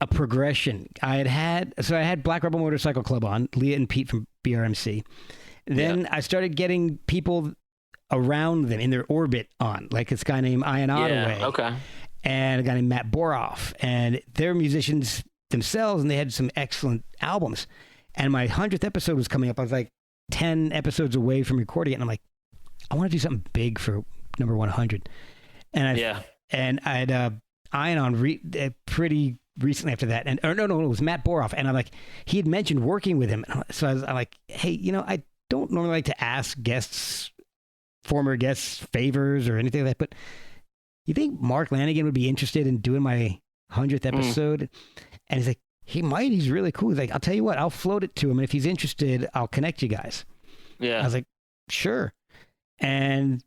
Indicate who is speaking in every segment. Speaker 1: a progression. I had had so I had Black Rebel Motorcycle Club on Leah and Pete from BRMC. Then I started getting people around them in their orbit on, like this guy named Ian Ottaway
Speaker 2: Yeah. Okay.
Speaker 1: and a guy named Matt Boroff, and they're musicians themselves, and they had some excellent albums. And my hundredth episode was coming up. I was like ten episodes away from recording it, and I'm like, I want to do something big for number one hundred. And I
Speaker 2: Yeah.
Speaker 1: and I had uh, Ion on re- uh, pretty recently after that, and or no, no, it was Matt Boroff, and I'm like, he had mentioned working with him, And I- so I was I'm like, hey, you know, I don't normally like to ask guests, former guests, favors or anything like that, but you think Mark Lanigan would be interested in doing my hundredth episode? And he's like, he might. He's really cool. He's like, I'll tell you what, I'll float it to him, and if he's interested, I'll connect you guys. I
Speaker 2: Yeah.
Speaker 1: was like, sure. And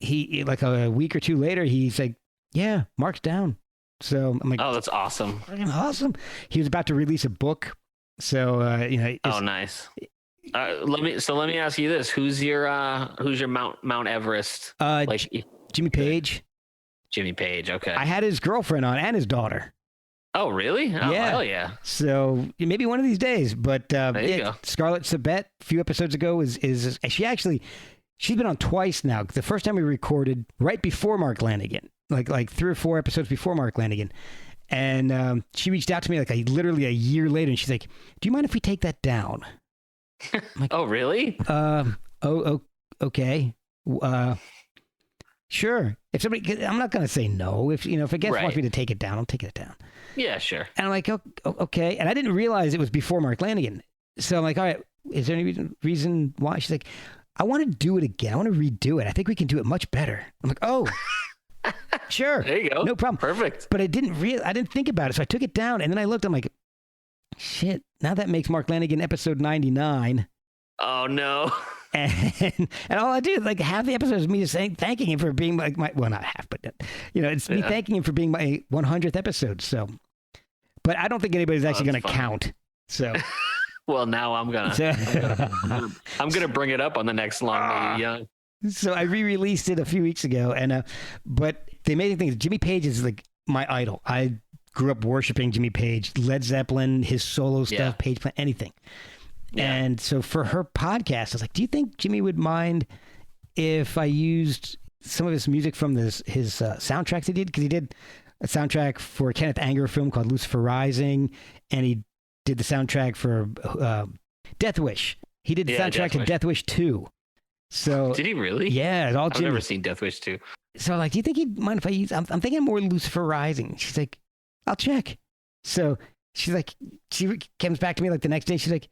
Speaker 1: he, like a week or two later, he's like, yeah, Mark's down. So I'm like,
Speaker 2: Oh, that's awesome.
Speaker 1: fucking awesome. He was about to release a book. So, uh, you know, it's-
Speaker 2: Oh, nice. Uh, let me. So let me ask you this: Who's your uh, Who's your Mount Mount Everest?
Speaker 1: uh,
Speaker 2: Like
Speaker 1: Jimmy Page,
Speaker 2: Jimmy Page. Okay.
Speaker 1: I had his girlfriend on and his daughter.
Speaker 2: oh, really? Oh,
Speaker 1: Yeah.
Speaker 2: Hell yeah.
Speaker 1: So maybe one of these days, but uh,
Speaker 2: There you go.
Speaker 1: Scarlett Sabet, a few episodes ago, is is she actually? She's been on twice now. The first time we recorded right before Mark Lanigan, like like three or four episodes before Mark Lanigan, and um, she reached out to me like a, literally a year later, and she's like, "Do you mind if we take that down?"
Speaker 2: Oh, really?
Speaker 1: Um, oh, oh, okay. Uh, sure. If somebody, 'cause I'm not gonna say no. If you know, if a guest
Speaker 2: Right.
Speaker 1: wants me to take it down, I'll take it down.
Speaker 2: Yeah. Sure.
Speaker 1: And I'm like, "Oh, oh, okay. And I didn't realize it was before Mark Lanigan. So I'm like, all right, is there any reason, reason why? She's like, I want to do it again. I want to redo it. I think we can do it much better. I'm like, oh, sure.
Speaker 2: There you go.
Speaker 1: No problem.
Speaker 2: Perfect.
Speaker 1: But I didn't real I didn't think about it. So I took it down and then I looked, I'm like, shit, now that makes Mark Lanigan episode 99.
Speaker 2: Oh no.
Speaker 1: And, and all I do, like half the episode is me just saying, thanking him for being like my, well, not half, but, you know, it's me
Speaker 2: Yeah.
Speaker 1: thanking him for being my 100th episode. So, but I don't think anybody's actually going
Speaker 2: that's
Speaker 1: to
Speaker 2: funny.
Speaker 1: count. So,
Speaker 2: Well, now I'm gonna.
Speaker 1: so,
Speaker 2: I'm gonna bring it up on the next Long
Speaker 1: Ah.
Speaker 2: May You Young.
Speaker 1: so I re released it a few weeks ago. And, uh, but the amazing thing is Jimmy Page is like my idol. I grew up worshiping Jimmy Page, Led Zeppelin, his solo stuff,
Speaker 2: Yeah.
Speaker 1: Page Plant, anything.
Speaker 2: Yeah.
Speaker 1: And so for her podcast, I was like, "Do you think Jimmy would mind if I used some of his music from this his uh, soundtracks he did? Because he did a soundtrack for a Kenneth Anger film called Lucifer Rising, and he did the soundtrack for uh, Death Wish. He did the
Speaker 2: Yeah,
Speaker 1: soundtrack
Speaker 2: Death
Speaker 1: to
Speaker 2: Wish.
Speaker 1: Death Wish Two. So
Speaker 2: Did he really?
Speaker 1: yeah, it's all
Speaker 2: I've
Speaker 1: Jimmy.
Speaker 2: never seen Death Wish 2.
Speaker 1: So like, do you think he'd mind if I use? I'm, I'm thinking more Lucifer Rising. She's like, I'll check. So she's like, she re- comes back to me like the next day. She's like,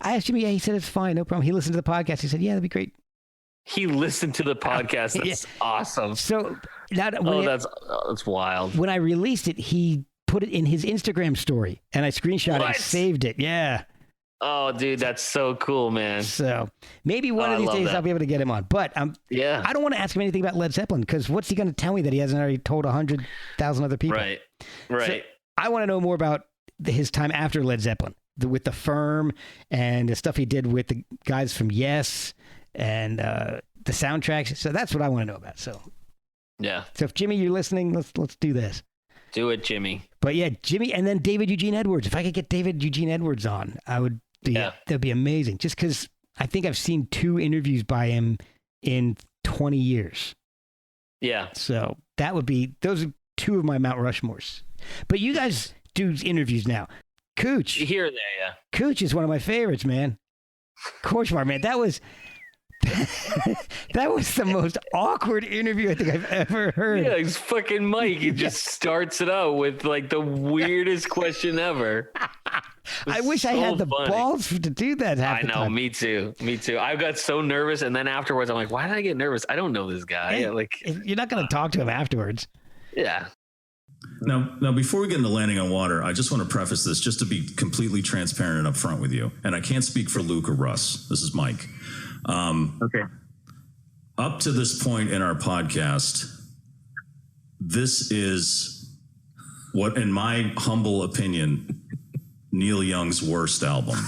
Speaker 1: I asked him, yeah, he said it's fine, no problem. He listened to the podcast. He said, yeah, that'd be great.
Speaker 2: He listened to the podcast.
Speaker 1: yeah.
Speaker 2: That's awesome.
Speaker 1: So now that- when,
Speaker 2: Oh,
Speaker 1: I-
Speaker 2: that's oh, that's wild.
Speaker 1: when I released it, he put it in his Instagram story, and I screenshot it, and
Speaker 2: What?
Speaker 1: saved it. Yeah.
Speaker 2: Oh, dude, that's so cool, man.
Speaker 1: So maybe one
Speaker 2: Oh,
Speaker 1: of
Speaker 2: I
Speaker 1: these
Speaker 2: love
Speaker 1: days
Speaker 2: that.
Speaker 1: I'll be able to get him on. But um,
Speaker 2: Yeah.
Speaker 1: I don't want to ask him anything about Led Zeppelin because what's he going to tell me that he hasn't already told hundred thousand other people?
Speaker 2: Right. Right.
Speaker 1: I want to know more about the, his time after Led Zeppelin the, with the firm and the stuff he did with the guys from Yes and uh, the soundtracks. So that's what I want to know about. So,
Speaker 2: yeah.
Speaker 1: so if Jimmy, you're listening, let's let's do this.
Speaker 2: Do it, Jimmy.
Speaker 1: But yeah, Jimmy, and then David Eugene Edwards. If I could get David Eugene Edwards on, I would. Be,
Speaker 2: Yeah.
Speaker 1: that'd be amazing. Just because I think I've seen two interviews by him in 20 years.
Speaker 2: Yeah.
Speaker 1: So that would be those are two of my Mount Rushmores. But you guys do interviews now. Cooch.
Speaker 2: Here or there, yeah.
Speaker 1: Cooch is one of my favorites, man. Korchmar, man, that was that was the most awkward interview I think I've ever heard.
Speaker 2: Yeah, it's fucking Mike. He just starts it out with like the weirdest question ever.
Speaker 1: I wish I had the
Speaker 2: balls.
Speaker 1: balls to do that. Half
Speaker 2: I
Speaker 1: the
Speaker 2: know,
Speaker 1: time.
Speaker 2: me too. Me too. I got so nervous and then afterwards I'm like, why did I get nervous? I don't know this guy.
Speaker 1: Hey.
Speaker 2: Like
Speaker 1: You're not going to talk to him afterwards.
Speaker 2: yeah.
Speaker 3: Now, now, before we get into landing on water, I just want to preface this just to be completely transparent and upfront with you. And I can't speak for Luke or Russ. This is Mike. Um,
Speaker 2: Okay.
Speaker 3: up to this point in our podcast, this is what, in my humble opinion, Neil Young's worst album.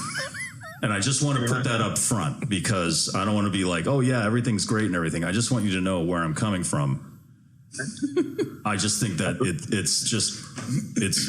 Speaker 3: And I just want to put that up front because I don't want to be like, oh, yeah, everything's great and everything. I just want you to know where I'm coming from. I just think that it, it's just, it's